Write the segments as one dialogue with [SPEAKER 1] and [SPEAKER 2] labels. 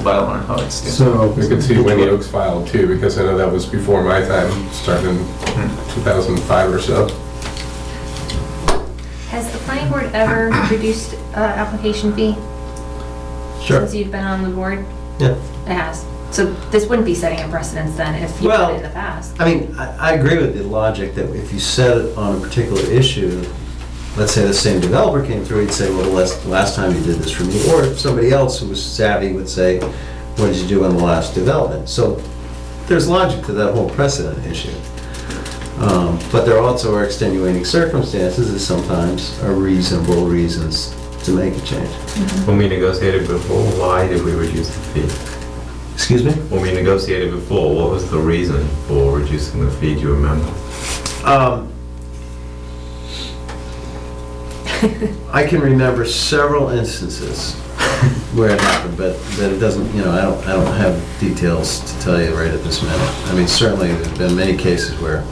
[SPEAKER 1] file on how it's.
[SPEAKER 2] So.
[SPEAKER 3] You could see Winnie Oaks filed too, because I know that was before my time, starting in 2005 or so.
[SPEAKER 4] Has the planning board ever reduced uh, application fee
[SPEAKER 5] Sure,
[SPEAKER 4] since you've been on the board?
[SPEAKER 5] yeah.
[SPEAKER 4] It has. So this wouldn't be setting a precedence then if you did
[SPEAKER 5] Well-
[SPEAKER 4] it in the past.
[SPEAKER 5] I mean, I, I agree with the logic that if you set it on a particular issue, let's say the same developer came through, he'd say, well, last, last time you did this for me, or if somebody else who was savvy would say, what did you do on the last development? So there's logic to that whole precedent issue. Um, But there also are extenuating circumstances that sometimes are reasonable reasons to make a change.
[SPEAKER 6] When we negotiated before, why did we reduce the fee?
[SPEAKER 5] Excuse me?
[SPEAKER 6] When we negotiated before, what was the reason for reducing the fee, do you remember?
[SPEAKER 5] Um, I can remember several instances where it happened, but, but it doesn't, you know, I don't, I don't have details to tell you right at this minute. I mean, certainly, there's been many cases where,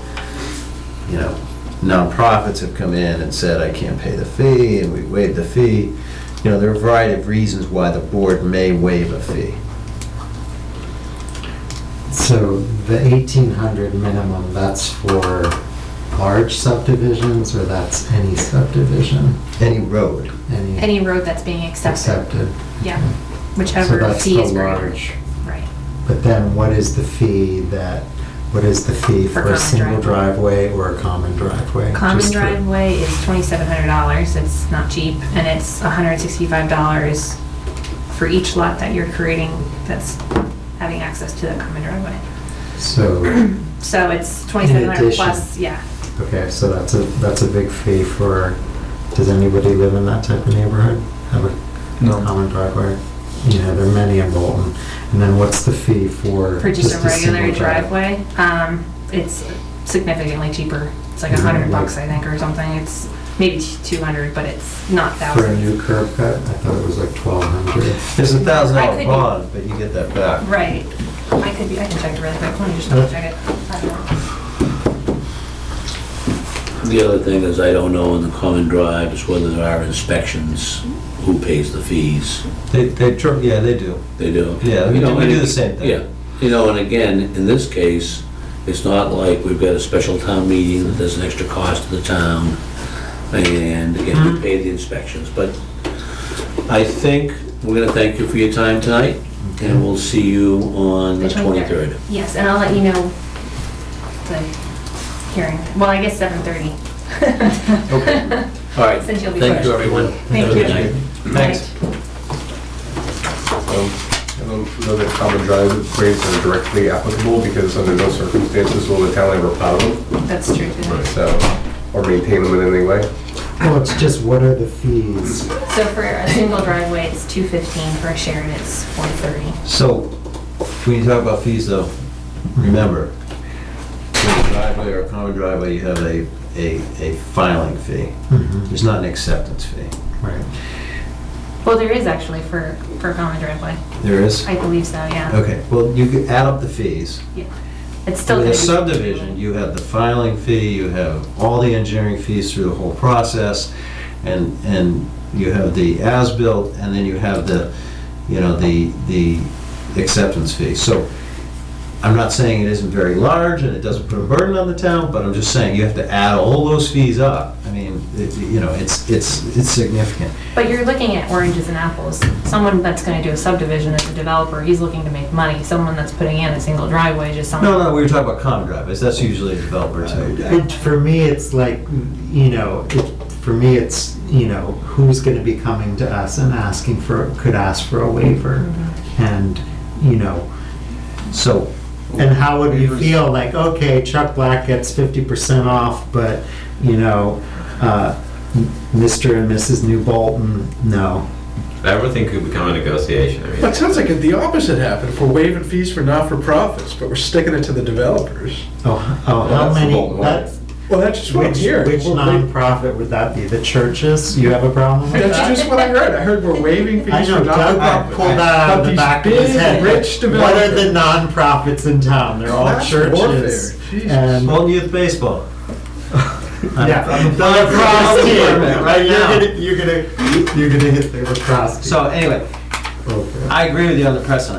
[SPEAKER 5] you know, nonprofits have come in and said, I can't pay the fee, and we waived the fee. You know, there are a variety of reasons why the board may waive a fee.
[SPEAKER 7] So the eighteen hundred minimum, that's for large subdivisions or that's any subdivision?
[SPEAKER 5] Any road,
[SPEAKER 7] Any
[SPEAKER 4] Any road that's being accepted,
[SPEAKER 7] accepted?
[SPEAKER 4] yeah,
[SPEAKER 7] So
[SPEAKER 4] whichever
[SPEAKER 7] that's
[SPEAKER 4] fee
[SPEAKER 7] the
[SPEAKER 4] is greater.
[SPEAKER 7] large.
[SPEAKER 4] Right.
[SPEAKER 7] But then what is the fee that, what is the fee
[SPEAKER 4] For
[SPEAKER 7] for a
[SPEAKER 4] common
[SPEAKER 7] single
[SPEAKER 4] driveway.
[SPEAKER 7] driveway or a common driveway?
[SPEAKER 4] Common
[SPEAKER 7] Just for-
[SPEAKER 4] driveway is twenty-seven hundred dollars, it's not cheap, and it's hundred and sixty-five dollars for each lot that you're creating that's having access to the common driveway.
[SPEAKER 7] So,
[SPEAKER 4] So it's twenty-seven hundred
[SPEAKER 7] addition.
[SPEAKER 4] plus, yeah.
[SPEAKER 7] okay, so that's a, that's a big fee for, does anybody live in that type of neighborhood? Have a
[SPEAKER 1] No.
[SPEAKER 7] common driveway? You know, there are many in Bolton. And then what's the fee for
[SPEAKER 4] For just a regular
[SPEAKER 7] single drive-
[SPEAKER 4] driveway, um, it's significantly cheaper. It's like a
[SPEAKER 7] Mhm.
[SPEAKER 4] hundred bucks, I think, or something. It's maybe two hundred, but it's not
[SPEAKER 7] For a
[SPEAKER 4] thousands.
[SPEAKER 7] new curb cut, I thought it was like twelve hundred.
[SPEAKER 5] there's a thousand
[SPEAKER 4] I
[SPEAKER 5] dollar
[SPEAKER 4] could-
[SPEAKER 5] bond, but you get that back.
[SPEAKER 4] Right. I could be, I can check it really quick. Let me just double check it. Uh, I don't know.
[SPEAKER 8] The other thing is, I don't know in the common drive is whether there are inspections, who pays the fees,
[SPEAKER 5] They, they, tr- yeah, they do.
[SPEAKER 8] they do.
[SPEAKER 5] Yeah, we
[SPEAKER 8] You know,
[SPEAKER 5] do- we
[SPEAKER 8] and-
[SPEAKER 5] do the same thing.
[SPEAKER 8] Yeah, you know, and again, in this case, it's not like we've got a special town meeting that there's an extra cost to the town, and again, we pay the inspections, but I think we're gonna thank you for your time tonight, and we'll see you on the
[SPEAKER 4] The
[SPEAKER 8] 23rd.
[SPEAKER 4] Yes, and I'll let you know the hearing. Well, I guess seven thirty.
[SPEAKER 5] Okay.
[SPEAKER 8] All right,
[SPEAKER 4] Since you'll be
[SPEAKER 8] thank
[SPEAKER 4] first.
[SPEAKER 8] you, everyone.
[SPEAKER 4] Thank
[SPEAKER 8] Have a good
[SPEAKER 4] you.
[SPEAKER 8] night.
[SPEAKER 5] Thanks.
[SPEAKER 3] Um, I don't know that common driveways are directly applicable, because under no circumstances will the town ever plow them,
[SPEAKER 4] That's true.
[SPEAKER 3] so, or maintain them in any way.
[SPEAKER 7] Well, it's just what are the fees?
[SPEAKER 4] So for a single driveway, it's two fifteen. For a shared, it's four thirty.
[SPEAKER 5] So, when you talk about fees though, remember, with a driveway or a common driveway, you have a, a, a filing fee.
[SPEAKER 7] Mhm,
[SPEAKER 5] There's not an acceptance fee.
[SPEAKER 7] Right.
[SPEAKER 4] Well, there is actually for, for a common driveway.
[SPEAKER 5] There is?
[SPEAKER 4] I believe so, yeah.
[SPEAKER 5] Okay, well, you could add up the fees.
[SPEAKER 4] It's still. gonna
[SPEAKER 5] With a
[SPEAKER 4] be-
[SPEAKER 5] subdivision, you have the filing fee, you have all the engineering fees through the whole process, and, and you have the as-built, and then you have the, you know, the, the acceptance fee. So I'm not saying it isn't very large and it doesn't put a burden on the town, but I'm just saying you have to add all those fees up. I mean, it- you know, it's, it's, it's significant.
[SPEAKER 4] But you're looking at oranges and apples. Someone that's gonna do a subdivision as a developer, he's looking to make money. Someone that's putting in a single driveway is just someone.
[SPEAKER 5] No, no, we were talking about common driveways, that's usually a developer too.
[SPEAKER 7] It, for me, it's like, you know, it, for me, it's, you know, who's gonna be coming to us and asking for, could ask for a waiver?
[SPEAKER 4] Mm-hmm.
[SPEAKER 7] And, you know,
[SPEAKER 5] So,
[SPEAKER 7] and how would we feel like, okay, Chuck Black gets fifty percent off, but, you know, uh, Mr. and Mrs. New Bolton, no.
[SPEAKER 6] Everything could become a negotiation, I mean,
[SPEAKER 9] That sounds like the opposite happened. If we're waiving fees for not-for-profits, but we're sticking it to the developers.
[SPEAKER 7] Oh, oh,
[SPEAKER 3] Well,
[SPEAKER 7] how
[SPEAKER 3] that's the
[SPEAKER 7] many,
[SPEAKER 3] Bolton way.
[SPEAKER 7] that's,
[SPEAKER 9] Well, that's just what I'm
[SPEAKER 7] Which,
[SPEAKER 9] hearing.
[SPEAKER 7] which
[SPEAKER 9] We're wa-
[SPEAKER 7] nonprofit would that be? The churches? You have a problem with
[SPEAKER 9] That's
[SPEAKER 7] that?
[SPEAKER 9] just what I heard. I heard we're waiving
[SPEAKER 7] I
[SPEAKER 9] fees for
[SPEAKER 7] know Doug
[SPEAKER 9] not-for-profits.
[SPEAKER 7] pulled that out
[SPEAKER 9] But
[SPEAKER 7] of the
[SPEAKER 9] these
[SPEAKER 7] back of his
[SPEAKER 9] big,
[SPEAKER 7] head.
[SPEAKER 9] rich
[SPEAKER 7] What are the
[SPEAKER 9] developers-
[SPEAKER 7] nonprofits in town? They're all
[SPEAKER 9] Class
[SPEAKER 7] churches.
[SPEAKER 9] warfare, Jesus.
[SPEAKER 7] And
[SPEAKER 5] Bolton Youth Baseball.
[SPEAKER 7] yeah,
[SPEAKER 5] I'm-
[SPEAKER 7] the lacrosse team, right?
[SPEAKER 5] Right now.
[SPEAKER 7] You're gonna, you're gonna, you're gonna hit the lacrosse team.
[SPEAKER 5] So anyway,
[SPEAKER 7] Okay.
[SPEAKER 5] I agree with you on the precedent.